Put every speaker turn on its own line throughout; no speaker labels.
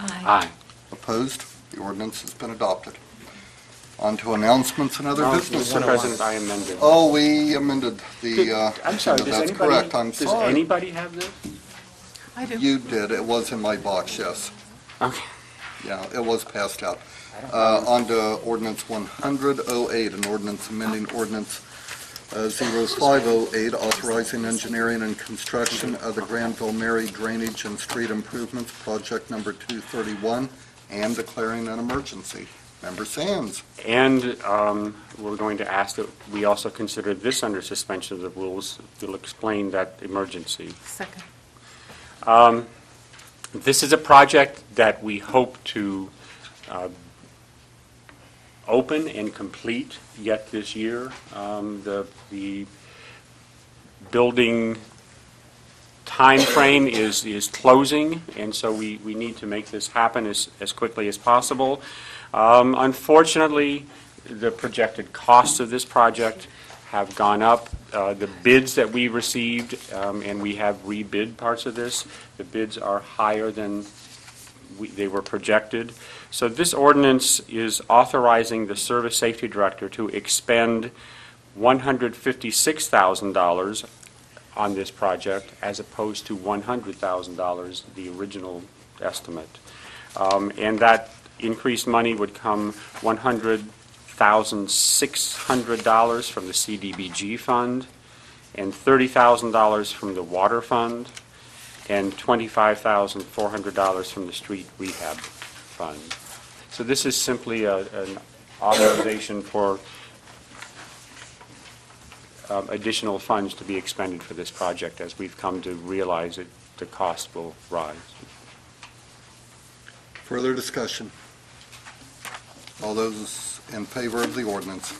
Aye.
Opposed? The ordinance has been adopted. On to announcements and other
No,
business.
Mr. President, I amended.
Oh, we amended the, uh,
Did- I'm sorry, does
that's
anybody,
correct, I'm
does
sorry.
anybody have this?
I do.
You did, it was in my box, yes.
Okay.
Yeah, it was passed out. Uh, On to ordinance 10008, an ordinance amending ordinance uh, 0508, authorizing engineering and construction of the Granville Mary Drainage and Street Improvements Project Number 231 and declaring an emergency. Member Sands,
And um, we're going to ask that we also consider this under suspension of the rules. We'll explain that emergency.
Second.
This is a project that we hope to uh, open and complete yet this year. Um, The, the building timeframe is, is closing, and so we, we need to make this happen as, as quickly as possible. Um, Unfortunately, the projected costs of this project have gone up. Uh, The bids that we received, um, and we have rebid parts of this, the bids are higher than we- they were projected. So this ordinance is authorizing the Service Safety Director to expend $156,000 on this project as opposed to $100,000, the original estimate. Um, And that increased money would come $100,600 from the CDBG fund and $30,000 from the water fund and $25,400 from the street rehab fund. So this is simply a- an authorization for um, additional funds to be expended for this project, as we've come to realize that the cost will rise.
further discussion. All those in favor of the ordinance?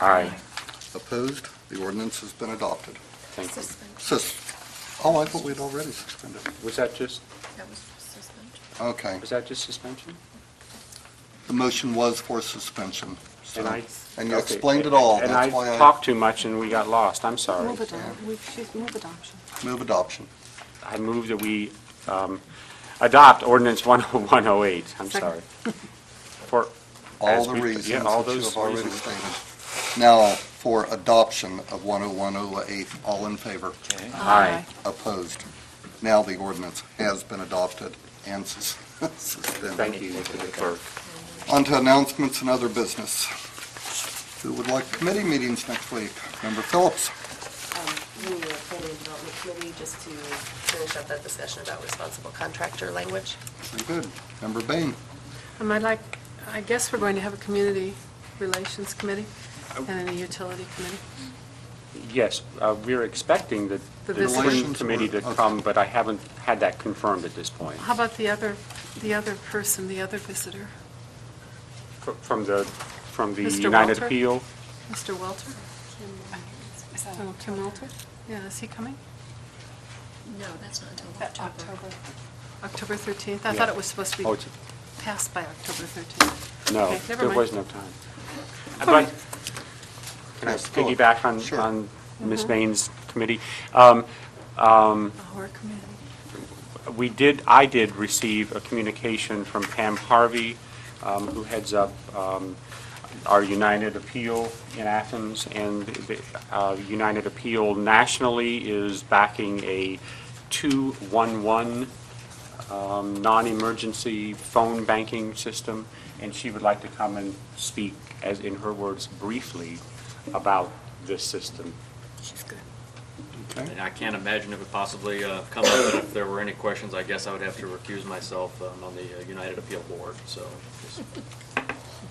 Aye.
Opposed? The ordinance has been adopted.
Thank you.
Sus- Oh, I thought we'd already suspended.
Was that just,
That was suspension.
Okay.
was that just suspension?
The motion was for suspension. so-
And I-
And you
okay.
explained it all.
And
That's why
I
I
talked too much and we got lost, I'm sorry.
Move adoption, we should move adoption.
move adoption.
I move that we um, adopt ordinance 10108, I'm sorry.
Second.
For,
All
As
the
we- yeah,
reasons that
all
you
those
have already
reasons.
stated. Now, for adoption of 10108, all in favor?
Aye.
Opposed? Now the ordinance has been adopted and sus- suspended.
thank you, Mr. Clerk.
On to announcements and other business. Who would like committee meetings next week? Member Phillips?
Meeting the Planning and Development Committee, just to finish up that discussion about responsible contractor language.
Very good. Member Bain?
Um, I'd like, I guess we're going to have a community relations committee and a utility committee.
Yes, uh, we're expecting the
The
the
visit.
Twin
Relations
Committee to
were- okay.
come, but I haven't had that confirmed at this point.
How about the other, the other person, the other visitor,
Fr- From the, from the
Mr.
United
Walter?
Appeal?
Mr. Welter? Oh, Kim Welter? Yeah, is he coming?
No, that's not until
October. October 13th? I thought it was supposed to
Oh,
be
it's-
passed by October 13th.
No,
Okay, never
there
mind.
was no time. I'd like- Can I
Yes, go on.
piggyback on,
Sure.
on
Mm-hmm.
Ms. Bain's committee? Um, um,
Our committee.
We did, I did receive a communication from Pam Harvey, um, who heads up um, our United Appeal in Athens, and the, uh, United Appeal nationally is backing a 211 um, non-emergency phone banking system, and she would like to come and speak, as in her words, briefly about this system.
She's good.
Okay.
And I can't imagine it would possibly uh, come up, but if there were any questions, I guess I would have to recuse myself um, on the uh, United Appeal Board, so just-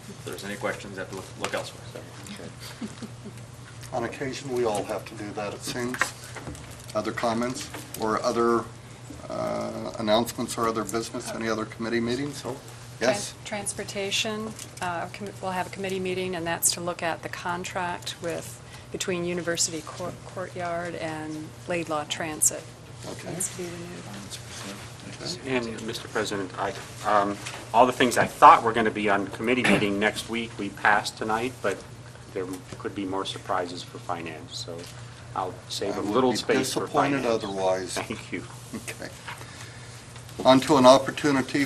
if there's any questions, I have to look- look elsewhere.
On occasion, we all have to do that, it seems. Other comments or other uh, announcements or other business, any other committee meetings? Oh, Yes?
Tran- Transportation, uh, com- we'll have a committee meeting, and that's to look at the contract with, between University Cour- Courtyard and Laidlaw Transit.
Okay.
Needs to be renewed.
And, Mr. President, I, um, all the things I thought were going to be on committee meeting next week, we passed tonight, but there could be more surprises for finance, so I'll save
I
a
would
little
be
space for
disappointed
finance.
otherwise.
Thank you.
Okay. On to an opportunity